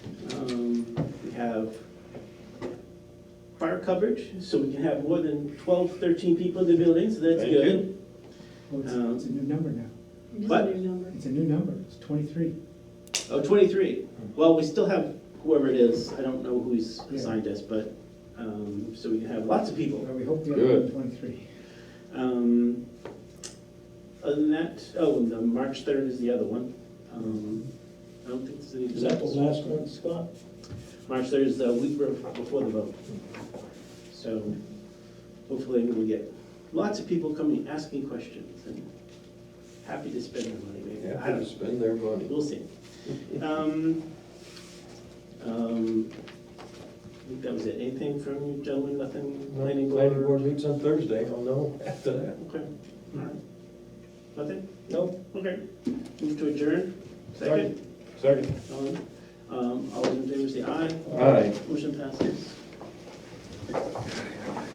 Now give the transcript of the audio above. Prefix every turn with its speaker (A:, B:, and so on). A: Um, have fire coverage, so we can have more than 12, 13 people in the building, so that's
B: Thank you.
A: good.
C: Well, it's,
A: Um,
C: it's a new number now.
D: It is
A: What?
D: a new number.
C: It's a new number. It's twenty-three.
A: Oh, 23. Well, we still have whoever it is, I don't know who he's assigned us, but, um, so we can have lots of people.
C: Well, we hope the other
B: Good.
C: one twenty-three.
A: Um, Other than that, oh, and the March 3rd is the other one. Um, I don't think there's any.
E: Is that the last one, Scott?
A: March 3rd is the week bef- before the vote. So hopefully we'll get lots of people coming, asking questions and happy to spend their money, maybe. I
B: Happy to
A: don't know.
B: spend their money.
A: We'll see. Um, um, I think that was it. Anything from you gentlemen? Nothing? Planning
E: Planning
A: board?
E: board meets on Thursday, I'll know after that.
A: Okay. All right. Nothing?
E: No,
A: Okay. Move to adjourn. Second?
E: second.
A: Um, All those in favor say aye.
B: Aye.
A: Motion passes.